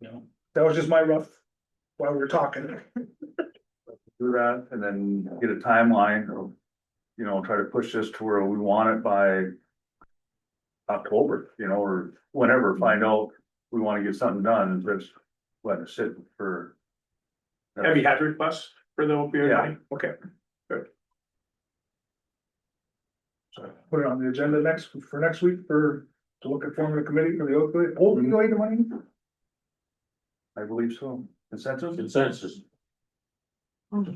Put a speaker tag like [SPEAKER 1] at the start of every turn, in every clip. [SPEAKER 1] No.
[SPEAKER 2] That was just my rough, while we were talking.
[SPEAKER 3] do that and then get a timeline of, you know, try to push this to where we want it by October, you know, or whenever,
[SPEAKER 2] Mm-hmm.
[SPEAKER 3] find out, we wanna get something done, let's let it sit for.
[SPEAKER 1] Have you had requests for the opioid money? Okay,
[SPEAKER 2] Put it on the agenda next, for next week for, to look at forming a committee for the opioid, opioid money.
[SPEAKER 3] I believe so, consensus?
[SPEAKER 4] Consensus.
[SPEAKER 3] Thank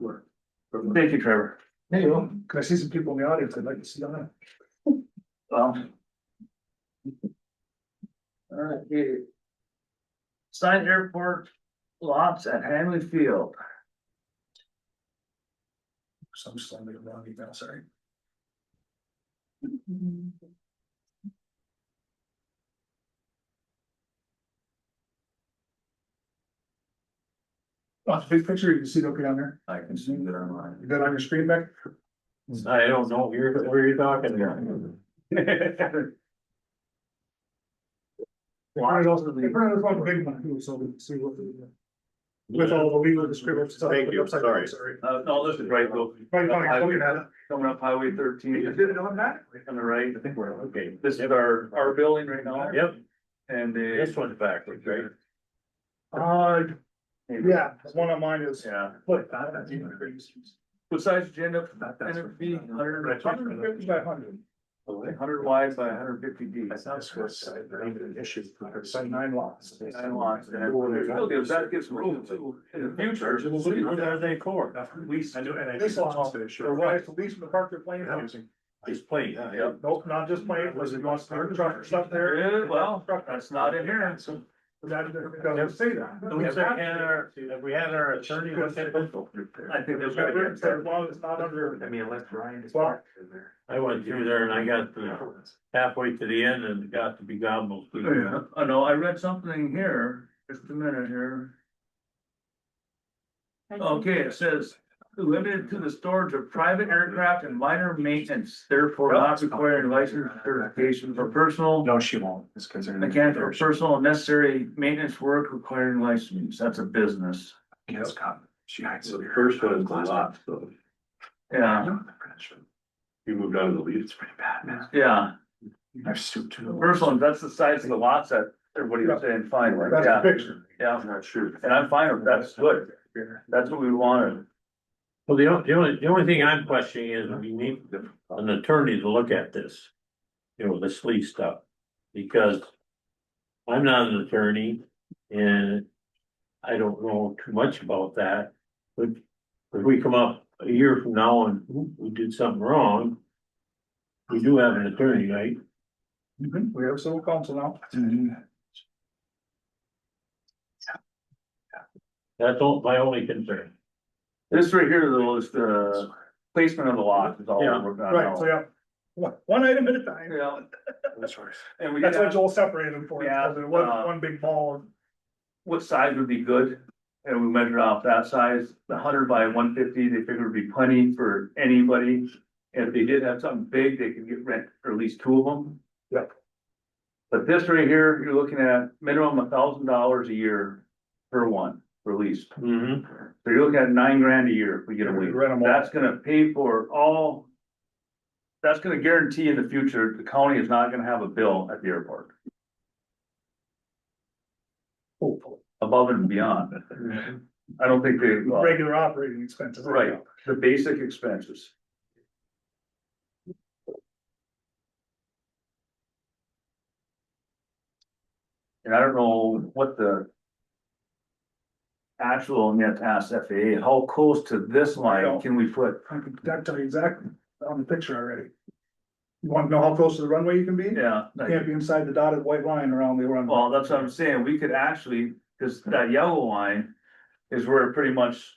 [SPEAKER 3] you, Trevor.
[SPEAKER 2] There you go. Cause I see some people in the audience I'd like to see on that.
[SPEAKER 3] Um,
[SPEAKER 5] All right, here. Signed airport lots at Hanley Field.
[SPEAKER 2] So I'm just gonna make a wrong email, sorry. On Oh, the big picture, you can see it okay down there.
[SPEAKER 3] I can see that online.
[SPEAKER 2] You got it on your screen back?
[SPEAKER 4] I don't know, you're, where you're talking about.
[SPEAKER 2] Why also the. one big one too, so we can see what. the- With all the legal descriptions.
[SPEAKER 4] Thank you,
[SPEAKER 2] Upside
[SPEAKER 4] sorry.
[SPEAKER 2] down, Sorry.
[SPEAKER 3] Uh, no, this is right, though.
[SPEAKER 2] Right, fine, looking at it.
[SPEAKER 3] Coming up Highway thirteen. On the right, I think we're, okay, this is our, our building right now.
[SPEAKER 4] Yep,
[SPEAKER 3] And the.
[SPEAKER 4] this one's backwards, right?
[SPEAKER 2] Uh, yeah, the one on mine is.
[SPEAKER 3] Yeah.
[SPEAKER 2] What?
[SPEAKER 3] Besides agenda,
[SPEAKER 2] that's-
[SPEAKER 3] hundred feet, hundred.
[SPEAKER 2] Hundred fifty by hundred.
[SPEAKER 3] Hundred wide by hundred fifty deep.
[SPEAKER 2] Issues, so nine lots.
[SPEAKER 3] Nine lots, and that gives- that gives room to, in the future.
[SPEAKER 4] What are they for?
[SPEAKER 2] Lease, I do, and I. Lease lots, or right, to lease from the park they're playing.
[SPEAKER 4] He's playing, yeah.
[SPEAKER 3] Yep.
[SPEAKER 2] Nope, not just playing, was it going to start truck or stuff there?
[SPEAKER 3] There is, well, that's not in here.
[SPEAKER 2] So. That, that doesn't say that.
[SPEAKER 4] Have we had our, have we had our attorney look at it?
[SPEAKER 3] I think
[SPEAKER 2] As
[SPEAKER 3] that's
[SPEAKER 2] long as it's not under.
[SPEAKER 5] mean, unless Ryan is
[SPEAKER 2] Well-
[SPEAKER 4] I went through there and I got to halfway to the end and got to be gobbled.
[SPEAKER 3] Yeah, I know, I read something here, just a minute here. Okay, it says, limited to the storage of private aircraft and minor maintenance, therefore not requiring license certification for personal.
[SPEAKER 5] No, she won't, it's because they're.
[SPEAKER 3] Again, for personal and necessary maintenance work requiring license, that's a business,
[SPEAKER 5] Yes, cop. She hides.
[SPEAKER 6] So the first one is a lot, so
[SPEAKER 3] yeah,
[SPEAKER 6] you moved on to the leaves.
[SPEAKER 5] It's pretty bad, man.
[SPEAKER 3] yeah.
[SPEAKER 5] I've stooped to the.
[SPEAKER 3] Personal, that's the size of the lots that everybody was saying, fine, with.
[SPEAKER 2] That's a
[SPEAKER 3] yeah,
[SPEAKER 2] picture.
[SPEAKER 3] yeah,
[SPEAKER 6] I'm not sure.
[SPEAKER 3] and I'm fine with that, that's good, that's what we wanted.
[SPEAKER 4] Well, the only, the only, the only thing I'm questioning is we need an attorney to look at this. You know, this lease stuff, because I'm not an attorney and I don't know too much about that. But if we come up a year from now and "Oop, we did something wrong, we do have an attorney, right?
[SPEAKER 2] Mm-hmm. We have civil council now.
[SPEAKER 3] Mm-hmm.
[SPEAKER 4] That's all, my only concern.
[SPEAKER 3] This right here though is the placement of the lot is all
[SPEAKER 4] Yeah,
[SPEAKER 3] we're gonna
[SPEAKER 2] Right, so
[SPEAKER 3] know.
[SPEAKER 2] yeah. One, one item at a time.
[SPEAKER 3] Yeah,
[SPEAKER 5] That's right.
[SPEAKER 3] and we did
[SPEAKER 2] That's why
[SPEAKER 3] have,
[SPEAKER 2] Joel separated them for,
[SPEAKER 3] Yeah,
[SPEAKER 2] because it wasn't
[SPEAKER 3] uh,
[SPEAKER 2] one big ball.
[SPEAKER 3] what size would be good? And we measured off that size, the hundred by one fifty, they figured would be plenty for anybody. And if they did have something big, they could get rent for at least two of them.
[SPEAKER 2] Yep.
[SPEAKER 3] But this right here, you're looking at minimum a thousand dollars a year per one, for lease.
[SPEAKER 4] Mm-hmm.
[SPEAKER 3] So you're looking at nine grand a year if we get a lease.
[SPEAKER 2] Rent 'em all.
[SPEAKER 3] That's gonna pay for all. That's gonna guarantee in the future, the county is not gonna have a bill at the airport,
[SPEAKER 2] Hopefully.
[SPEAKER 3] above and beyond. I don't think they, well,
[SPEAKER 2] Regular operating expenses.
[SPEAKER 3] Right. the basic expenses. And I don't know what the. Actual net ask FAA, how close to this line can we put?
[SPEAKER 2] I can, I can tell you exactly on the picture already. You wanna know how close to the runway you can be?
[SPEAKER 3] Yeah. Oh, like-
[SPEAKER 2] Can't be inside the dotted white line around the runway.
[SPEAKER 3] Well, that's what I'm saying, we could actually, cause that yellow line is where pretty much.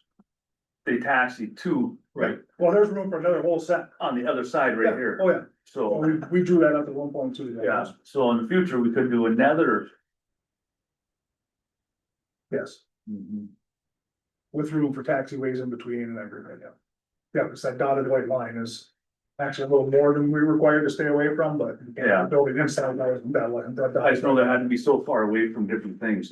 [SPEAKER 3] They taxi to, right,
[SPEAKER 2] Well, there's room for another whole set.
[SPEAKER 3] on the other side right
[SPEAKER 2] Yeah,
[SPEAKER 3] here,
[SPEAKER 2] Oh, yeah, Well,
[SPEAKER 3] so,
[SPEAKER 2] we, we drew that up at one point too.
[SPEAKER 3] yeah, so in the future, we could do another.
[SPEAKER 2] Yes, with room for taxiways in between and everything, yeah. Yeah, because that dotted white line is Actually, a little more than we were required to stay away from, but.
[SPEAKER 3] Yeah.
[SPEAKER 2] Building inside, that was, that, was- that.
[SPEAKER 3] I just know that had to be so far away from different things.